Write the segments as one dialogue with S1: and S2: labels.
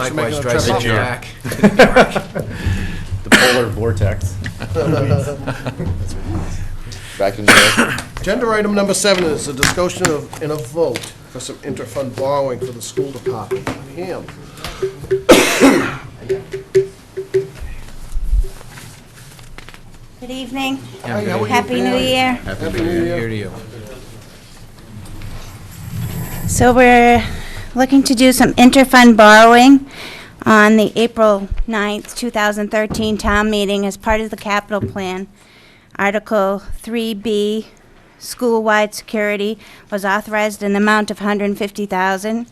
S1: Likewise,
S2: Making a
S1: drive
S2: trip
S1: me
S2: up there.
S1: back.
S3: The polar vortex.
S4: Back in there.
S2: Agenda item number seven is a discussion of, and a vote for some interfund borrowing for the school department. Ham.
S5: Good evening.
S2: Hi, how are you?
S5: Happy New Year.
S2: Happy New
S1: Here
S2: Year.
S1: to you.
S5: So we're looking to do some interfund borrowing on the April 9th, 2013 town meeting as part of the capital plan. Article 3B, school-wide security, was authorized in the amount of 150000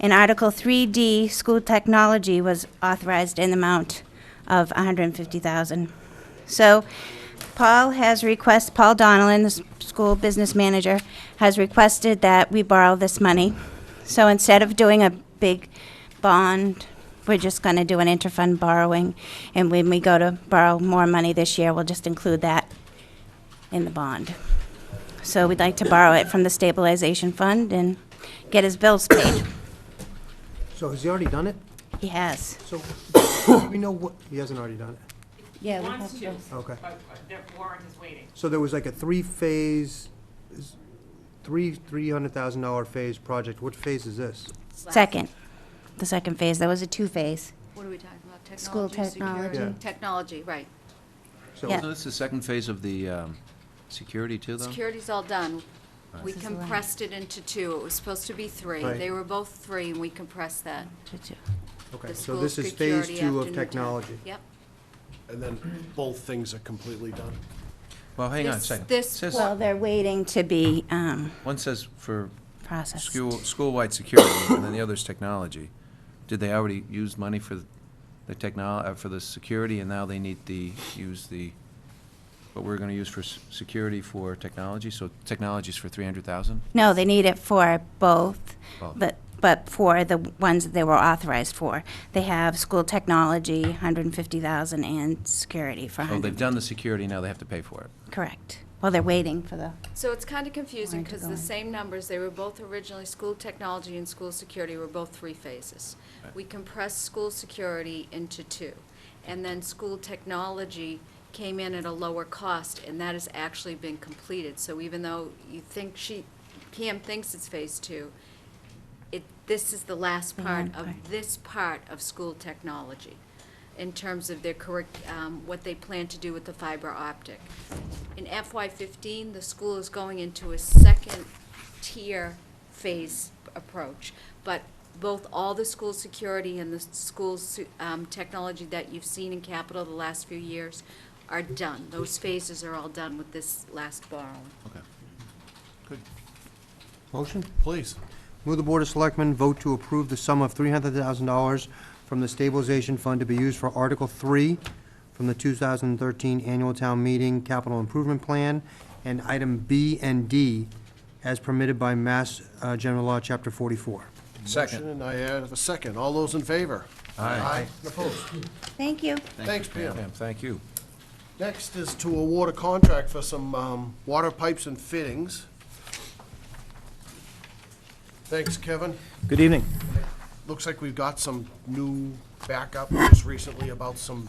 S5: And Article 3D, school technology, was authorized in the amount of 150000 So Paul has request, Paul Donnellan, the s- school business manager, has requested that we borrow this money. So instead of doing a big bond, we're just going to do an interfund borrowing. And when we go to borrow more money this year, we'll just include that in the bond. So we'd like to borrow it from the stabilization fund and get his bills paid.
S6: So has he already done it?
S5: He has.
S6: So, we know what, he hasn't already done it,
S5: Yeah.
S7: Wants to,
S6: okay.
S7: but uh, their warrant is waiting.
S6: So there was like a three-phase, is- three, three hundred thousand dollar phase project, what phase is this?
S5: Second, the second phase. That was a two-phase.
S8: What are we talking about? Technology?
S5: School technology.
S8: security?
S6: Yeah.
S8: Technology, right.
S6: So
S5: Yeah.
S1: So this is the second phase of the um, security too, though?
S8: Security's all done. We
S5: This is the line.
S8: compressed it into two. It was supposed to be three.
S6: Right.
S8: They were both three, and we compressed that.
S6: Okay,
S8: The
S6: so this
S8: school
S6: is phase
S8: security
S6: two of
S8: afternoon time.
S6: technology.
S8: Yep.
S2: And then both things are completely done.
S1: Well, hang on a
S8: This-
S1: second.
S8: this
S1: Says-
S5: Well, they're waiting to be um,
S1: One says for
S5: processed.
S1: school, school-wide security, and then the other's technology. Did they already use money for the technol, uh, for the security, and now they need the, use the, what we're gonna use for s- security for technology? So technology's for three hundred thousand?
S5: No, they need it for both,
S1: Both.
S5: but, but for the ones that they were authorized for. They have school technology, 150,000, and security for
S1: Oh, they've
S5: 100.
S1: done the security, now they have to pay for it.
S5: Correct. Well, they're waiting for the,
S8: So it's kind of confusing,
S5: Wanted to
S8: because
S5: go
S8: the
S5: in.
S8: same numbers, they were both originally, school technology and school security were both three phases.
S1: Right.
S8: We compressed school security into two. And then school technology came in at a lower cost, and that has actually been completed. So even though you think she, Pam thinks it's phase two, it, this is the last
S5: The
S8: part
S5: long part.
S8: of this part of school technology in terms of their curric, um, what they plan to do with the fiber optic. In FY fifteen, the school is going into a second tier phase approach. But both all the school security and the school's, su- um, technology that you've seen in capital the last few years are done. Those phases are all done with this last borrowing.
S1: Okay.
S6: Motion?
S2: Please.
S6: Move the Board of Selectmen vote to approve the sum of three hundred thousand dollars from the stabilization fund to be used for Article Three from the two thousand and thirteen Annual Town Meeting Capital Improvement Plan, and item B and D as permitted by Mass uh, General Law, Chapter forty-four.
S1: Second.
S2: And I have a second. All those in favor?
S1: Aye.
S2: And Opposed?
S5: thank you.
S2: Thanks, Pam.
S1: Pam, thank you.
S2: Next is to award a contract for some um, water pipes and fittings. Thanks, Kevin.
S3: Good evening.
S2: Looks like we've got some new backup just recently about some,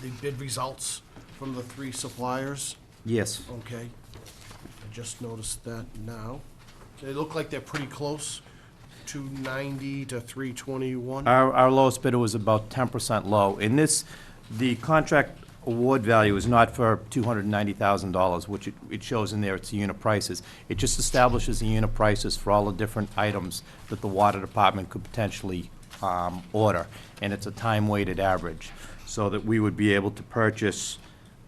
S2: the bid results from the three suppliers.
S3: Yes.
S2: Okay. I just noticed that now. They look like they're pretty close, 290 to 321.
S3: Our, our lowest bidder was about ten percent low. In this, the contract award value is not for two hundred and ninety thousand dollars, which it, it shows in there, it's the unit prices. It just establishes the unit prices for all the different items that the water department could potentially, um, order. And it's a time-weighted average, so that we would be able to purchase,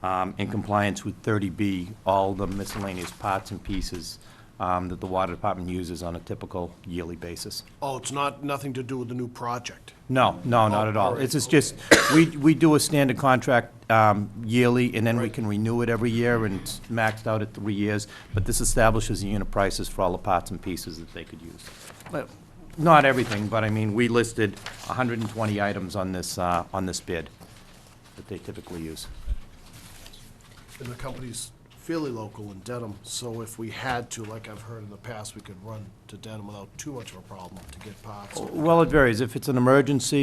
S3: um, in compliance with thirty B, all the miscellaneous parts and pieces, um, that the water department uses on a typical yearly basis.
S2: Oh, it's not, nothing to do with the new project.
S3: No, no, not at all. It's it's just, we, we do a standard contract um, yearly, and then we can renew it every year, and it's maxed out at three years, but this establishes the unit prices for all the parts and pieces that they could use. But Not everything, but I mean, we listed 120 items on this, uh, on this bid that they typically use.
S2: And the company's fairly local in Dedham, so if we had to, like I've heard in the past, we could run to Dedham without too much of a problem to get parts.
S3: Well, it varies. If it's an emergency,